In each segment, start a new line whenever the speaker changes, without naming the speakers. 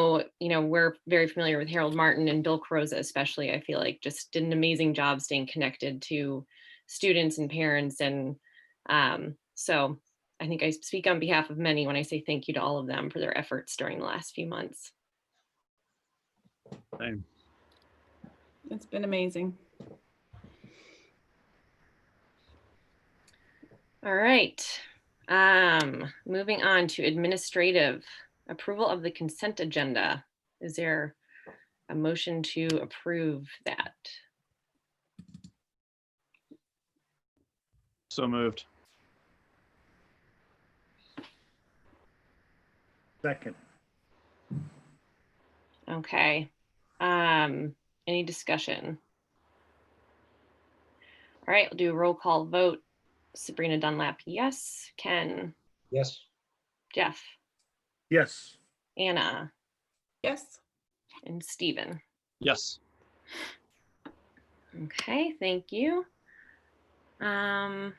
know, you know, we're very familiar with Harold Martin and Bill Carosa especially. I feel like just did an amazing job staying connected to students and parents and um, so I think I speak on behalf of many when I say thank you to all of them for their efforts during the last few months.
Same.
It's been amazing.
All right. Um, moving on to administrative approval of the consent agenda. Is there a motion to approve that?
So moved.
Second.
Okay. Um, any discussion? All right, we'll do a roll call vote. Sabrina Dunlap, yes. Ken,
yes,
Jeff,
Yes.
Anna,
Yes.
and Stephen.
Yes.
Okay, thank you. Um,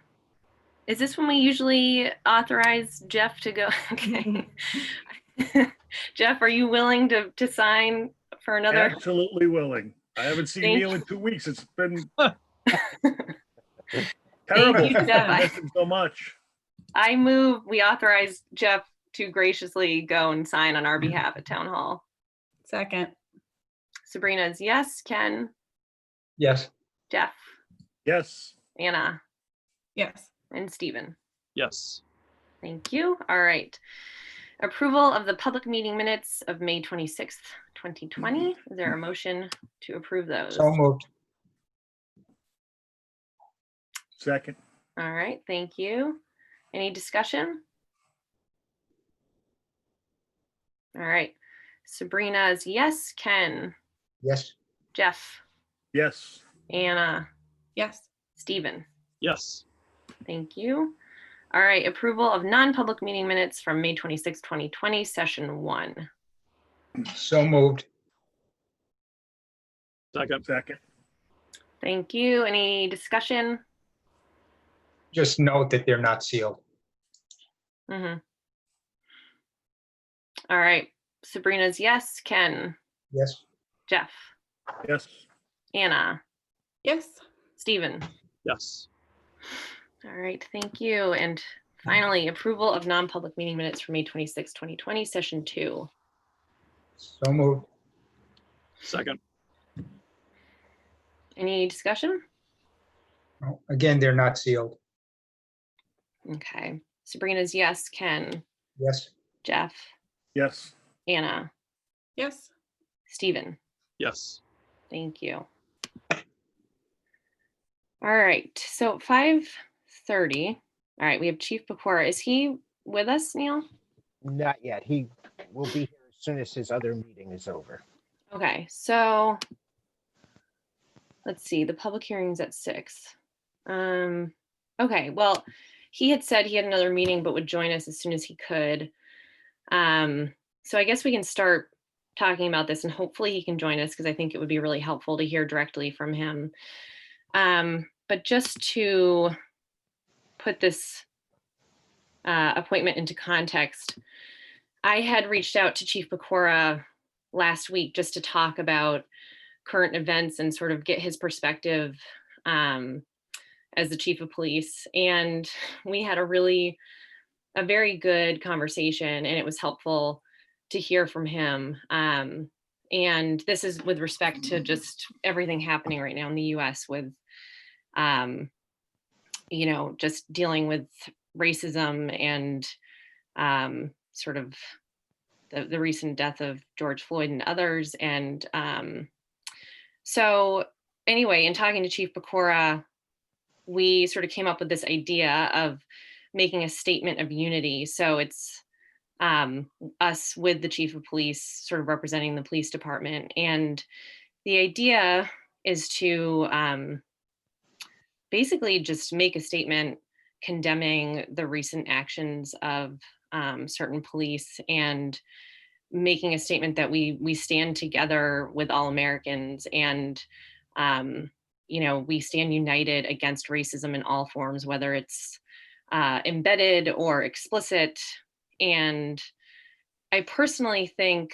is this when we usually authorize Jeff to go? Okay. Jeff, are you willing to, to sign for another?
Absolutely willing. I haven't seen
Thank
Neil in two weeks. It's been
Thank
terrible.
you, Jeff.
I
I-
miss him So much.
I move, we authorize Jeff to graciously go and sign on our behalf at town hall.
Second.
Sabrina's yes, Ken,
yes.
Jeff,
Yes.
Anna,
Yes.
and Stephen.
Yes.
Thank you. All right. Approval of the public meeting minutes of May 26th, 2020. Is there a motion to approve those?
So moved,
Second.
All right, thank you. Any discussion? All right, Sabrina's yes, Ken,
yes,
Jeff,
Yes.
Anna,
Yes.
Stephen.
Yes.
Thank you. All right, approval of non-public meeting minutes from May 26, 2020, session one.
so moved,
Second.
Second.
Thank you. Any discussion?
just note that they're not sealed,
Mhm. All right, Sabrina's yes, Ken,
yes,
Jeff,
Yes.
Anna,
Yes.
Stephen.
Yes.
All right, thank you. And finally, approval of non-public meeting minutes for May 26, 2020, session two.
so moved,
Second.
Any discussion?
No, again, they're not sealed,
Okay. Sabrina's yes, Ken,
yes,
Jeff,
Yes.
Anna,
Yes.
Stephen.
Yes.
Thank you. All right, so 5:30. All right, we have Chief Pecora. Is he with us, Neil?
Not yet. He will be here as soon as his other meeting is over.
Okay, so let's see, the public hearing's at six. Um, okay, well, he had said he had another meeting but would join us as soon as he could. Um, so I guess we can start talking about this and hopefully he can join us because I think it would be really helpful to hear directly from him. Um, but just to put this uh, appointment into context, I had reached out to Chief Pecora last week just to talk about current events and sort of get his perspective um, as the chief of police. And we had a really, a very good conversation, and it was helpful to hear from him. Um, and this is with respect to just everything happening right now in the US with, um, you know, just dealing with racism and um, sort of the, the recent death of George Floyd and others. And um, so, anyway, in talking to Chief Pecora, we sort of came up with this idea of making a statement of unity. So it's um, us with the chief of police, sort of representing the police department. And the idea is to um, basically just make a statement condemning the recent actions of um, certain police and making a statement that we we stand together with all Americans and um, you know we stand united against racism in all forms, whether it's uh, embedded or explicit. And I personally think